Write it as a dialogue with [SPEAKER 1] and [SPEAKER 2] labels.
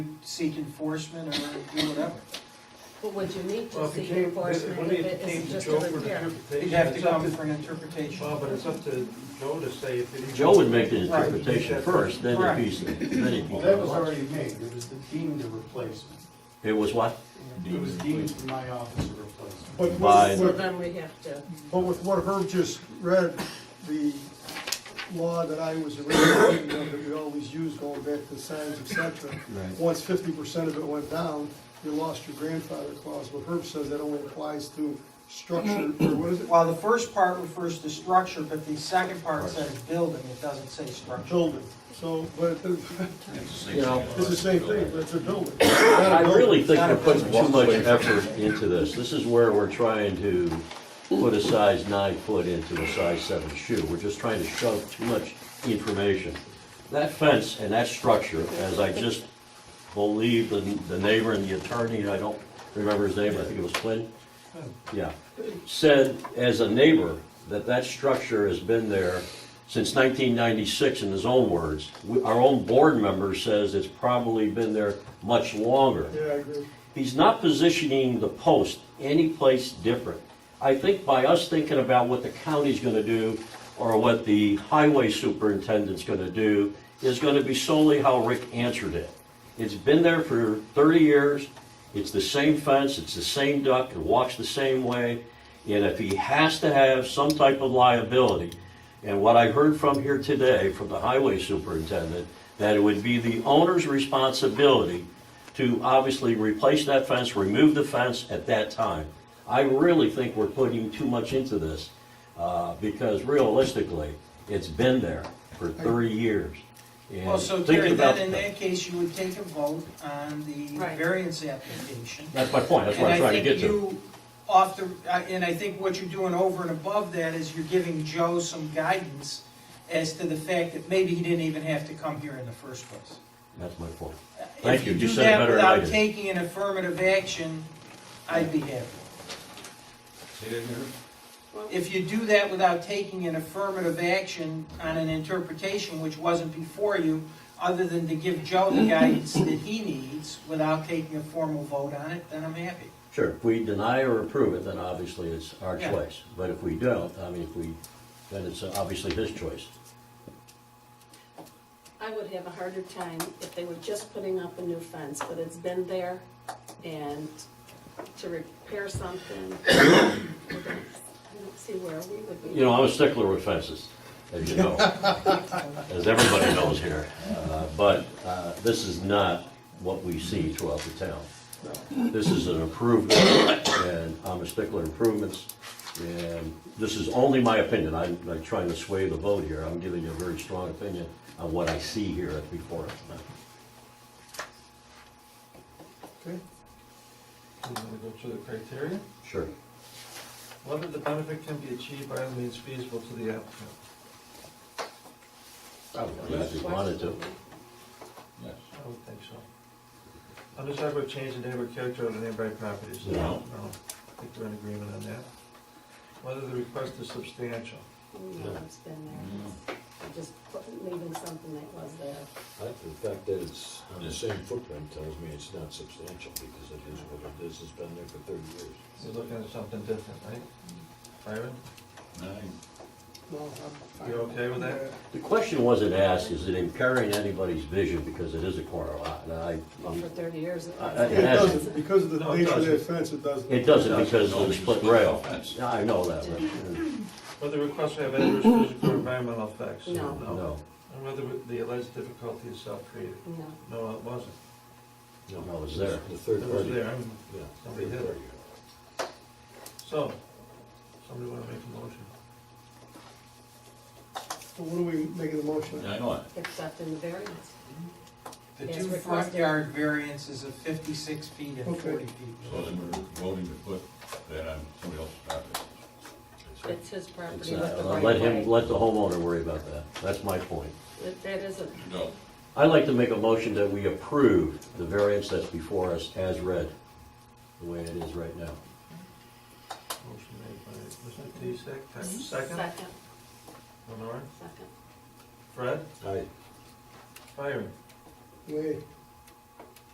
[SPEAKER 1] seek enforcement or do whatever.
[SPEAKER 2] But would you need
[SPEAKER 3] Well,
[SPEAKER 2] to
[SPEAKER 3] if it
[SPEAKER 2] seek
[SPEAKER 3] came, if-
[SPEAKER 2] enforcement
[SPEAKER 3] when
[SPEAKER 2] if
[SPEAKER 3] it
[SPEAKER 2] it
[SPEAKER 3] came
[SPEAKER 2] is
[SPEAKER 3] to
[SPEAKER 2] just a
[SPEAKER 3] Joe for an
[SPEAKER 2] repair?
[SPEAKER 3] interpretation.
[SPEAKER 1] You'd have to
[SPEAKER 3] it's up
[SPEAKER 1] come for an interpretation.
[SPEAKER 3] Well, but it's up to Joe to say if it.
[SPEAKER 4] Joe would make the interpretation first, then if
[SPEAKER 1] Correct.
[SPEAKER 4] he's, then if
[SPEAKER 5] Well, that was
[SPEAKER 4] he.
[SPEAKER 5] already made, it was deemed a replacement.
[SPEAKER 4] It was what?
[SPEAKER 5] It was deemed from my office a replacement.
[SPEAKER 6] But
[SPEAKER 4] By-
[SPEAKER 6] with,
[SPEAKER 2] So
[SPEAKER 6] with-
[SPEAKER 2] then we have to,
[SPEAKER 6] but with what Herb just read, the law that I was originally thinking of, that we always use going back to signs, et cetera,
[SPEAKER 4] Right.
[SPEAKER 6] once fifty percent of it went down, you lost your grandfather clause, but Herb says that only applies to structure, or what is it?
[SPEAKER 1] Well, the first part refers to structure, but the second part says building, it doesn't say structure.
[SPEAKER 6] Building, so, but it-
[SPEAKER 4] You know,
[SPEAKER 6] it's the same thing, but it's a building. Not
[SPEAKER 4] I
[SPEAKER 6] a building.
[SPEAKER 4] really think we're putting too much effort into this. This is where we're trying to put a size nine foot into a size seven shoe. We're just trying to shove too much information. That fence and that structure, as I just believe the, the neighbor and the attorney, I don't remember his name, I think it was Flynn. Yeah, said as a neighbor that that structure has been there since nineteen ninety-six in his own words. We- Our own board member says it's probably been there much longer.
[SPEAKER 6] Yeah, I agree.
[SPEAKER 4] He's not positioning the post any place different. I think by us thinking about what the county's gonna do or what the highway superintendent's gonna do is gonna be solely how Rick answered it. It's been there for thirty years, it's the same fence, it's the same duck, it walks the same way. And if he has to have some type of liability, and what I heard from here today from the highway superintendent, that it would be the owner's responsibility to obviously replace that fence, remove the fence at that time. I really think we're putting too much into this, uh, because realistically, it's been there for 30 years. And
[SPEAKER 1] Well, so
[SPEAKER 4] thinking
[SPEAKER 1] Terry,
[SPEAKER 4] about
[SPEAKER 1] then in
[SPEAKER 4] the-
[SPEAKER 1] that case, you would take a vote on the
[SPEAKER 2] Right.
[SPEAKER 1] variance application.
[SPEAKER 4] That's my point, that's
[SPEAKER 1] And
[SPEAKER 4] what
[SPEAKER 1] I
[SPEAKER 4] I'm trying to
[SPEAKER 1] think
[SPEAKER 4] get to.
[SPEAKER 1] you Off the, I- and I think what you're doing over and above that is you're giving Joe some guidance as to the fact that maybe he didn't even have to come here in the first place.
[SPEAKER 4] That's my point.
[SPEAKER 1] If
[SPEAKER 4] Thank you. You
[SPEAKER 1] do
[SPEAKER 4] said it
[SPEAKER 1] that
[SPEAKER 4] better than I
[SPEAKER 1] Without
[SPEAKER 4] did.
[SPEAKER 1] taking an affirmative action, I'd be happy. If you do that without taking an affirmative action on an interpretation which wasn't before you, other than to give Joe the guidance that he needs without taking a formal vote on it, then I'm happy.
[SPEAKER 4] Sure, if we deny or approve it, then obviously it's our
[SPEAKER 1] Yeah.
[SPEAKER 4] choice. But if we don't, I mean, if we, then it's obviously his choice.
[SPEAKER 7] I would have a harder time if they were just putting up a new fence, but it's been there, and to repair something, I don't see where we would be.
[SPEAKER 4] You know, I'm a stickler with fences, as you know, as everybody knows here. Uh, But uh, this is not what we see throughout the town. This is an improvement, and I'm a stickler improvements. And this is only my opinion. I'm not trying to sway the vote here. I'm giving you a very strong opinion on what I see here at before us now.
[SPEAKER 6] Okay.
[SPEAKER 3] You wanna go through the criteria?
[SPEAKER 4] Sure.
[SPEAKER 3] Whether the benefit can be achieved by all means feasible to the applicant.
[SPEAKER 4] I would do that If you wanted to.
[SPEAKER 3] I would think so. Undesirable would change the neighborhood character of the neighboring properties.
[SPEAKER 4] No.
[SPEAKER 3] No, I think we're in agreement on that. Whether the request is substantial.
[SPEAKER 7] No, it's been there. Just leaving something that was there.
[SPEAKER 8] I- The fact that it's on the same footprint tells me it's not substantial, because it is what it is, it's been there for thirty years.
[SPEAKER 3] You're looking at something different, eh? right? Byron,
[SPEAKER 6] No, I'm
[SPEAKER 3] you okay with that?
[SPEAKER 4] The question wasn't asked, is it impairing anybody's vision because it is a corner lot? And I,
[SPEAKER 7] Well, for thirty years. it
[SPEAKER 4] Mm. I- I-
[SPEAKER 7] was.
[SPEAKER 6] It doesn't, because of the
[SPEAKER 3] No, it
[SPEAKER 6] nature of that
[SPEAKER 3] doesn't.
[SPEAKER 6] fence, it doesn't.
[SPEAKER 4] It doesn't because of the split rail. Yeah, I know that, but, uh,
[SPEAKER 3] Whether the request will have adverse physical or environmental effects.
[SPEAKER 7] No.
[SPEAKER 4] uh, no,
[SPEAKER 3] And whether the alleged difficulty is self-created.
[SPEAKER 7] No,
[SPEAKER 3] No, it wasn't.
[SPEAKER 4] no, it was there.
[SPEAKER 8] The
[SPEAKER 3] It
[SPEAKER 8] third
[SPEAKER 3] was
[SPEAKER 8] party.
[SPEAKER 3] there.
[SPEAKER 8] Yeah,
[SPEAKER 3] Somebody
[SPEAKER 8] third
[SPEAKER 3] did.
[SPEAKER 8] party.
[SPEAKER 3] So, somebody wanna make a motion?
[SPEAKER 6] So what are we making the motion? on?
[SPEAKER 7] except in the variance.
[SPEAKER 1] The
[SPEAKER 7] Yes,
[SPEAKER 1] two front
[SPEAKER 7] requested.
[SPEAKER 1] yard variances of fifty-six feet and
[SPEAKER 6] Okay.
[SPEAKER 1] forty feet.
[SPEAKER 9] So then we're voting to put that on somebody else's property.
[SPEAKER 7] It's his property
[SPEAKER 4] It's,
[SPEAKER 7] with the
[SPEAKER 4] uh,
[SPEAKER 7] right
[SPEAKER 4] Let
[SPEAKER 7] of
[SPEAKER 4] him,
[SPEAKER 7] way.
[SPEAKER 4] let the homeowner worry about that. That's my point.
[SPEAKER 7] That- That isn't,
[SPEAKER 9] No.
[SPEAKER 4] I'd like to make a motion that we approve the variance that's before us as read, the way it is right now.
[SPEAKER 3] Motion made by Mr. Tisak, Type E
[SPEAKER 7] Mm-hmm.
[SPEAKER 3] second.
[SPEAKER 7] second,
[SPEAKER 3] Lenore,
[SPEAKER 7] second.
[SPEAKER 3] Fred,
[SPEAKER 8] Aye.
[SPEAKER 3] Byron,
[SPEAKER 6] Wait,